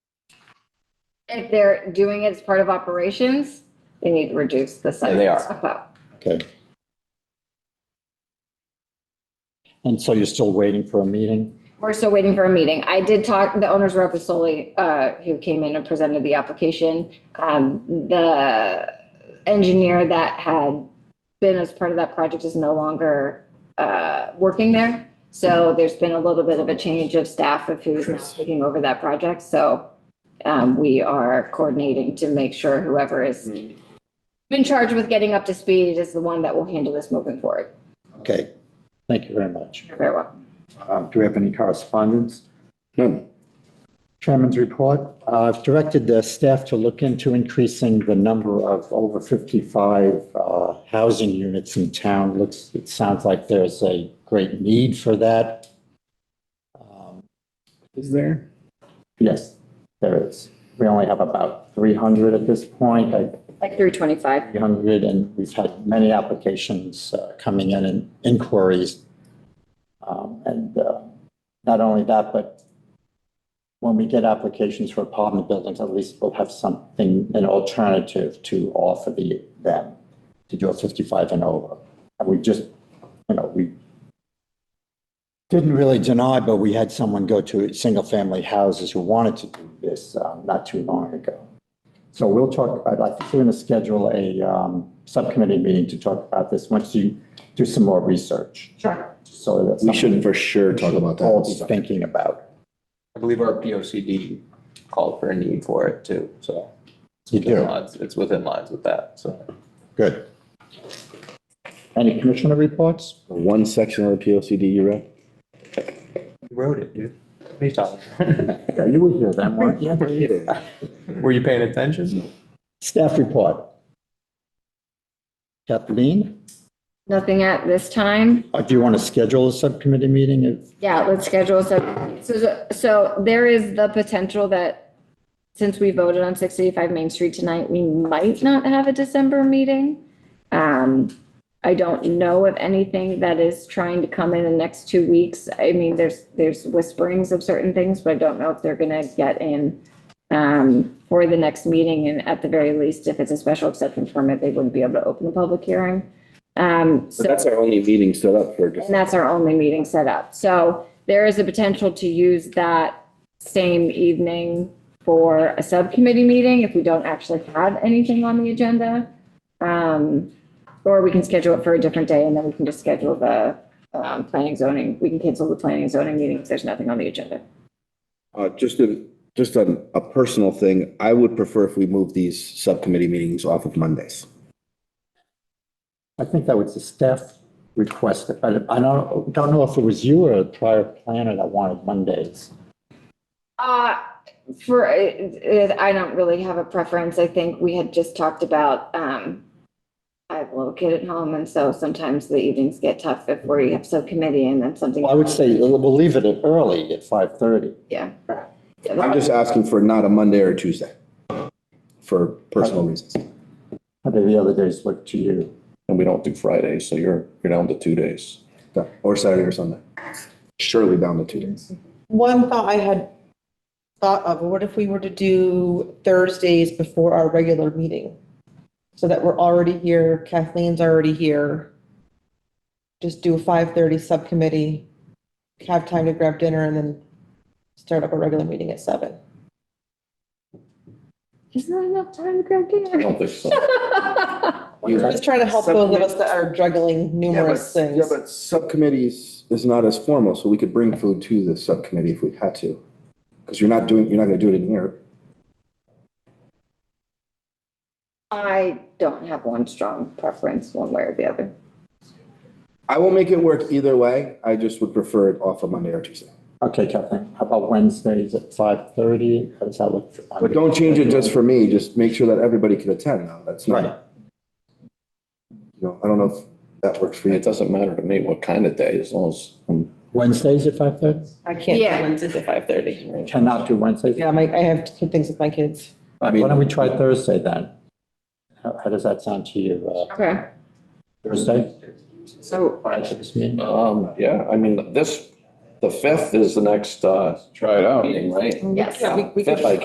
if they're doing it as part of operations, they need to reduce the size. Yeah, they are. of that. Okay. And so you're still waiting for a meeting? We're still waiting for a meeting. I did talk, the owner's rep was solely, uh, who came in and presented the application. Um, the engineer that had been as part of that project is no longer, uh, working there. So there's been a little bit of a change of staff of who's now taking over that project. So, um, we are coordinating to make sure whoever is in charge with getting up to speed is the one that will handle this moving forward. Okay, thank you very much. You're Very well. Um, Do we have any correspondence? None. Chairman's report. Uh, I've directed the staff to look into increasing the number of over 55 uh, housing units in town. Looks, it sounds like there's a great need for that. Um, Is there? Yes, there is. We only have about 300 at this point. I Like through 25. 300, and we've had many applications uh, coming in and inquiries. Um, And uh, not only that, but when we get applications for apartment buildings, at least we'll have something, an alternative to offer the, them to do a 55 and over. And we just, you know, we didn't really deny, but we had someone go to single-family houses who wanted to do this uh, not too long ago. So we'll talk, I'd like, we're going to schedule a um, subcommittee meeting to talk about this once you do some more research. Sure. So that's. We something should for sure we talk should about All be that. thinking about. I believe our P O C D called for a need for it too, so. You it's do, lines- It's within lines with that, so. good. Any commissioner reports? One section of the P O C D you read? Wrote it, dude. What are you talking about? You were here then, weren't you? Were you paying attention? Staff report. Kathleen, Nothing at this time. uh, do you want to schedule a subcommittee meeting? If- Yeah, let's schedule so, so, so there is the potential that since we voted on six eighty-five Main Street tonight, we might not have a December meeting. Um, I don't know of anything that is trying to come in the next two weeks. I mean, there's, there's whisperings of certain things, but I don't know if they're gonna get in um, for the next meeting, and at the very least, if it's a special exception permit, they wouldn't be able to open the public hearing. Um, so. But that's our only meeting set up for just And that's our only meeting set up. So there is a potential to use that same evening for a subcommittee meeting if we don't actually have anything on the agenda. Um, or we can schedule it for a different day and then we can just schedule the, um, planning zoning. We can cancel the planning and zoning meeting if there's nothing on the agenda. Uh, just a, just a, a personal thing, I would prefer if we move these subcommittee meetings off of Mondays. I think that was the staff request, but I don't, don't know if it was you or a prior planner that wanted Mondays. Uh, for, uh, uh, I don't really have a preference. I think we had just talked about, um, I have a little kid at home and so sometimes the evenings get tough if we have subcommittee and then something. Well, I would say we'll we'll leave it at early at 5:30. Yeah. I'm just asking for not a Monday or a Tuesday for personal reasons. How do the other days look to you? And we don't do Fridays, so you're, you're down to two days. Or Saturday or Sunday. Surely down to two days. One thought I had thought of, what if we were to do Thursdays before our regular meeting? So that we're already here, Kathleen's already here. Just do a five thirty subcommittee, have time to grab dinner and then start up a regular meeting at seven. Is there enough time to grab dinner? think so. Just trying to help those of us that are juggling numerous Yeah, things. but subcommittees is not as formal, so we could bring food to the subcommittee if we had to. Because you're not doing, you're not gonna do it in here. I don't have one strong preference one way or the other. I will make it work either way, I just would prefer it off of Monday or Tuesday. Okay, Kathleen, how about Wednesdays at 5:30? How does that look? for- But don't change it just for me, just make sure that everybody can attend now, that's Right, not, you know, I don't know if that works for you. It doesn't matter to me what kind of day, as long as I'm Wednesdays at 5:30? I can't do Yeah. Wednesdays at five thirty. Cannot do Wednesdays? Yeah, my, I have two things with my kids. Why don't we try Thursday then? How how does that sound to you, uh, Okay, Thursday? so Prior to this meeting? Um, yeah, I mean, this, the fifth is the next, uh, Try it out. meeting, right? Yes. Yeah, we- we could- Fifth, I